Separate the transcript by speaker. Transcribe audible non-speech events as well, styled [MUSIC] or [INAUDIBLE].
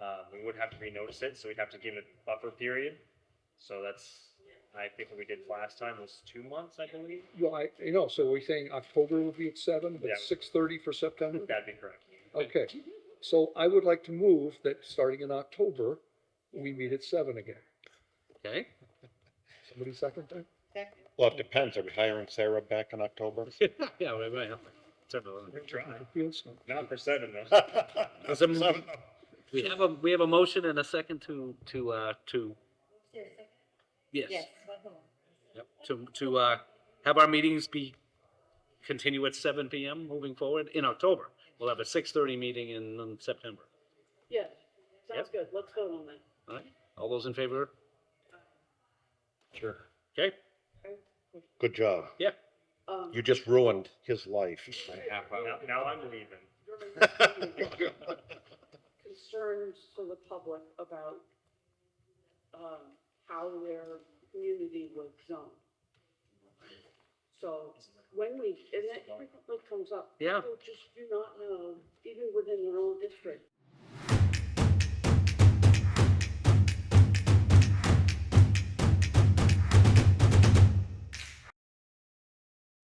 Speaker 1: um, we would have to renotice it, so we'd have to give it buffer period. So that's, I think what we did last time was two months, I believe.
Speaker 2: Well, I, you know, so we're saying October will be at seven, but
Speaker 1: Yeah.
Speaker 2: six thirty for September?
Speaker 1: [LAUGHS] That'd be correct.
Speaker 2: Okay, so I would like to move that starting in October, we meet at seven again.
Speaker 3: [LAUGHS] Okay.
Speaker 2: Somebody second that?
Speaker 4: Second.
Speaker 5: Well, it depends. Are we hiring Sarah back in October?
Speaker 3: yeah, right, right. Turn it on.
Speaker 1: We're trying.
Speaker 2: Feels so.
Speaker 1: Not for seven though.
Speaker 5: That's
Speaker 3: a- We have a, we have a motion and a second to, to, uh, to, yes.
Speaker 4: Yes.
Speaker 3: Yep, to, to, uh, have our meetings be, continue at seven PM moving forward in October. We'll have a six thirty meeting in, um, September.
Speaker 6: Yes, sounds good, let's vote on that.
Speaker 3: All right, all those in favor?
Speaker 5: Sure.
Speaker 3: Okay,
Speaker 5: Good job.
Speaker 3: yeah.
Speaker 6: Um,
Speaker 5: You just ruined his life.
Speaker 1: Now, now I'm leaving.
Speaker 3: [LAUGHS]
Speaker 6: Concerns to the public about, um, how their community was zoned. So when we, and that frequently comes up.
Speaker 3: Yeah.
Speaker 6: People just do not know, even within their own district,